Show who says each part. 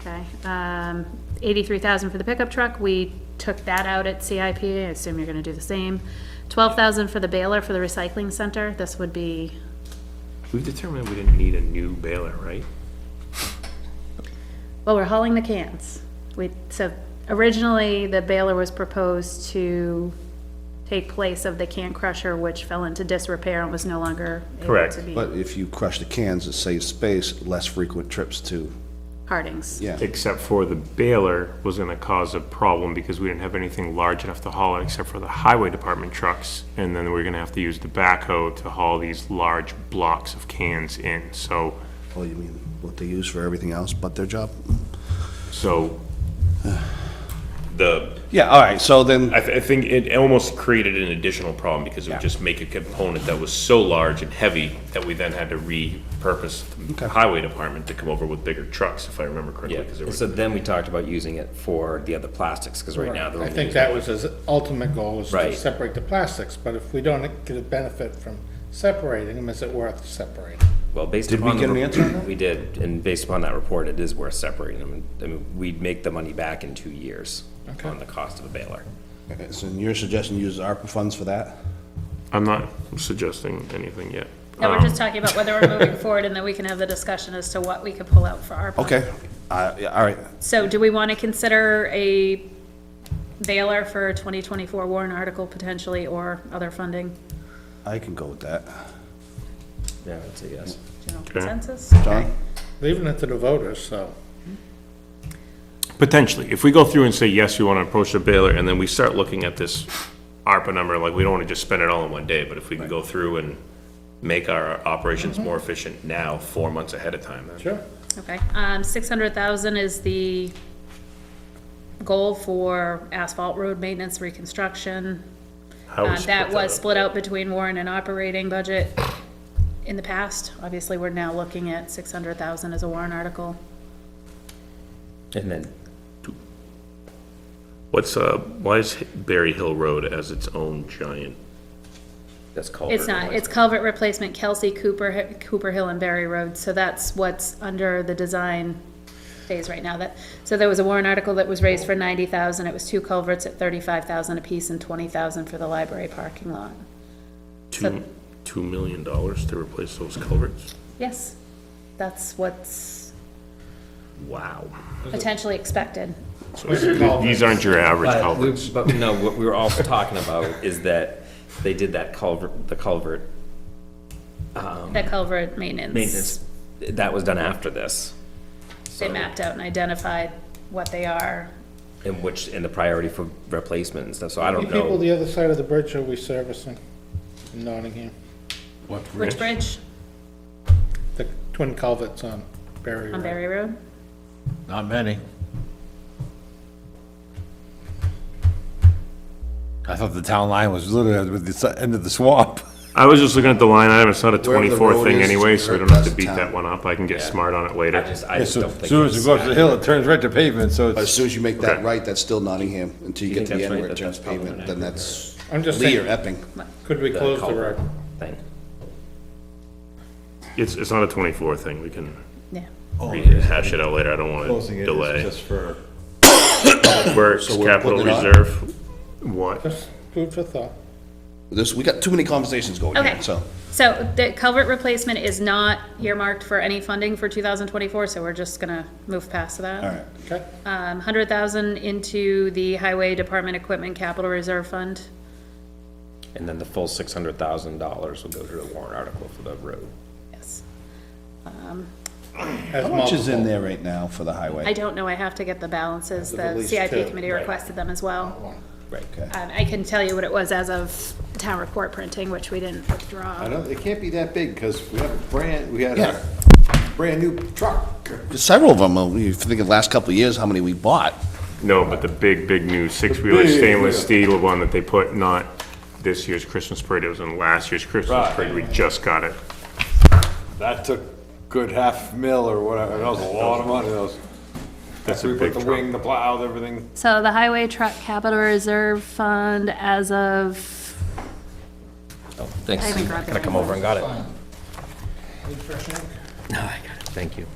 Speaker 1: Okay, um, eighty-three thousand for the pickup truck, we took that out at CIP, I assume you're gonna do the same. Twelve thousand for the baler for the recycling center, this would be,
Speaker 2: We've determined we didn't need a new baler, right?
Speaker 1: well, we're hauling the cans. We, so originally, the baler was proposed to take place of the can crusher, which fell into disrepair and was no longer able
Speaker 2: Correct.
Speaker 1: to be
Speaker 3: But if you crush the cans, it saves space, less frequent trips to,
Speaker 1: Harding's.
Speaker 3: yeah.
Speaker 2: Except for the baler was gonna cause a problem because we didn't have anything large enough to haul it except for the highway department trucks. And then we're gonna have to use the backhoe to haul these large blocks of cans in, so,
Speaker 3: Well, you mean what they use for everything else but their job?
Speaker 2: so.
Speaker 4: The,
Speaker 3: Yeah, all right, so then,
Speaker 4: I, th- I think it almost created an additional problem because it would just make a component that was so large and heavy that we then had to repurpose
Speaker 3: Okay.
Speaker 4: the highway department to come over with bigger trucks, if I remember correctly.
Speaker 5: Yeah,
Speaker 4: 'cause there were-
Speaker 5: so then we talked about using it for the other plastics, because right now they're
Speaker 6: I
Speaker 5: only
Speaker 6: think
Speaker 5: using
Speaker 6: that was his ultimate goal, was to
Speaker 5: Right.
Speaker 6: separate the plastics, but if we don't get a benefit from separating them, is it worth separating?
Speaker 5: Well, based
Speaker 3: Did we
Speaker 5: upon. the
Speaker 3: get an
Speaker 5: re-
Speaker 3: answer on that?
Speaker 5: We did, and based upon that report, it is worth separating them. I mean, we'd make the money back in two years on the cost of a baler.
Speaker 3: okay, so your suggestion uses ARPA funds for that?
Speaker 2: I'm not suggesting anything yet.
Speaker 1: No, we're
Speaker 2: Um,
Speaker 1: just talking about whether we're moving forward, and then we can have the discussion as to what we could pull out for our.
Speaker 3: Okay, uh, yeah, all right,
Speaker 1: So do we want to consider a baler for 2024 warrant article potentially, or other funding?
Speaker 3: I can go with that.
Speaker 5: Yeah, I'd say yes.
Speaker 1: General consensus?
Speaker 3: John?
Speaker 6: Leaving it to the voters, so.
Speaker 2: Potentially, if we go through and say, yes, we want to approach the baler, and then we start looking at this ARPA number, like, we don't want to just spend it all in one day, but if we can go through and
Speaker 4: Make our
Speaker 1: Mm-hmm.
Speaker 4: operations more efficient now, four months ahead of time. then.
Speaker 6: Sure.
Speaker 1: Okay, um, 600,000 is the goal for asphalt road maintenance reconstruction.
Speaker 2: how we
Speaker 1: Um,
Speaker 2: split
Speaker 1: That was
Speaker 2: up.
Speaker 1: split out between warrant and operating budget in the past. Obviously, we're now looking at 600,000 as a warrant article.
Speaker 5: And then,
Speaker 4: What's, uh, why is Berry Hill Road as its own giant?
Speaker 5: that's culvert.
Speaker 1: It's not, it's culvert replacement, Kelsey Cooper, Hi- Cooper Hill and Berry Road, so that's what's under the design phase right now. That, so there was a warrant article that was raised for ninety thousand, it was two culverts at thirty-five thousand apiece and twenty thousand for the library parking lot.
Speaker 4: Two, two million dollars to replace those culverts?
Speaker 1: Yes, that's what's
Speaker 4: Wow.
Speaker 1: potentially expected.
Speaker 2: These aren't your average
Speaker 5: But we-
Speaker 2: culverts.
Speaker 5: But no, what we were also talking about is that they did that culvert, the culvert
Speaker 1: The culvert maintenance.
Speaker 5: maintenance, that was done after this.
Speaker 1: They mapped out and identified what they are.
Speaker 5: And which, and the priority for replacement and stuff, so I
Speaker 6: How
Speaker 5: don't
Speaker 6: many people
Speaker 5: know.
Speaker 6: the other side of the bridge are we servicing in Nottingham?
Speaker 1: Which bridge
Speaker 6: The twin culverts on Berry
Speaker 1: on
Speaker 6: Road.
Speaker 1: Berry Road?
Speaker 7: Not many. I thought the town line was literally at the s- end of the swamp.
Speaker 2: I was just looking at the line item, it's not a
Speaker 3: Wherever the
Speaker 2: twenty-four
Speaker 3: road
Speaker 2: thing
Speaker 3: is,
Speaker 2: anyway, so we
Speaker 3: right,
Speaker 2: don't have to
Speaker 3: that's
Speaker 2: beat that
Speaker 3: town.
Speaker 2: one up, I can get
Speaker 5: Yeah.
Speaker 2: smart on it
Speaker 5: I
Speaker 2: later.
Speaker 5: just, I just don't
Speaker 7: So
Speaker 5: think.
Speaker 7: soon as
Speaker 5: it's-
Speaker 7: you go up the hill, it turns right to pavement, so
Speaker 3: But as
Speaker 7: it's,
Speaker 3: soon as you make
Speaker 2: Okay.
Speaker 3: that right, that's still Nottingham, until you get
Speaker 5: You
Speaker 3: to the
Speaker 5: think that's
Speaker 3: end
Speaker 5: right,
Speaker 3: where it
Speaker 5: that
Speaker 3: turns
Speaker 5: that's probably
Speaker 3: pavement,
Speaker 5: an
Speaker 3: then
Speaker 5: accurate-
Speaker 3: that's
Speaker 6: I'm just
Speaker 3: Lee or
Speaker 6: saying,
Speaker 3: Epping.
Speaker 6: could we
Speaker 5: the
Speaker 6: close the
Speaker 5: culvert
Speaker 6: road?
Speaker 5: Thing.
Speaker 2: It's, it's not a twenty-four thing, we can
Speaker 1: Yeah.
Speaker 2: re- hash it out later, I don't want
Speaker 7: closing
Speaker 2: to
Speaker 7: it is
Speaker 2: delay.
Speaker 7: just for,
Speaker 2: Works,
Speaker 3: So we're
Speaker 2: capital
Speaker 3: putting it on?
Speaker 2: reserve, what?
Speaker 6: Just food for thought.
Speaker 3: This, we got too many conversations going
Speaker 1: Okay.
Speaker 3: here, so.
Speaker 1: So the culvert replacement is not earmarked for any funding for 2024, so we're just gonna move past that.
Speaker 3: All right,
Speaker 6: Okay,
Speaker 1: Um, 100,000 into the Highway Department Equipment Capital Reserve Fund.
Speaker 5: And then the full six hundred thousand dollars will go to the warrant article for the road.
Speaker 1: Yes.
Speaker 3: how much is in there right now for the
Speaker 1: I
Speaker 3: highway?
Speaker 1: don't know, I have to get the balances.
Speaker 6: At
Speaker 1: The
Speaker 6: least
Speaker 1: CIP
Speaker 6: two,
Speaker 1: committee
Speaker 5: right. Oh,
Speaker 1: requested them as well.
Speaker 5: Right.
Speaker 3: Okay.
Speaker 1: Um, I can tell you what it was as of town report printing, which we didn't withdraw.
Speaker 8: No, it can't be that big, because we have a brand, we had a brand-new truck.
Speaker 3: Several of them, uh, if you think of the last couple of years, how many we bought.
Speaker 2: No, but the big, big new six-wheeler
Speaker 8: big,
Speaker 2: stainless
Speaker 8: yeah.
Speaker 2: steel one that they put, not this year's Christmas parade, it was in last year's Christmas
Speaker 8: Right.
Speaker 2: parade, we just got it.
Speaker 8: That took good half mil or whatever, that was a lot of money, that was.
Speaker 2: That's a
Speaker 8: We
Speaker 2: big
Speaker 8: put the wing,
Speaker 2: truck.
Speaker 8: the plow, everything.
Speaker 1: So the Highway Truck Capital Reserve Fund as of,
Speaker 5: Oh, thanks.
Speaker 1: I haven't grabbed
Speaker 5: Could I
Speaker 1: it.
Speaker 5: come over and got it? No, I got it, thank you.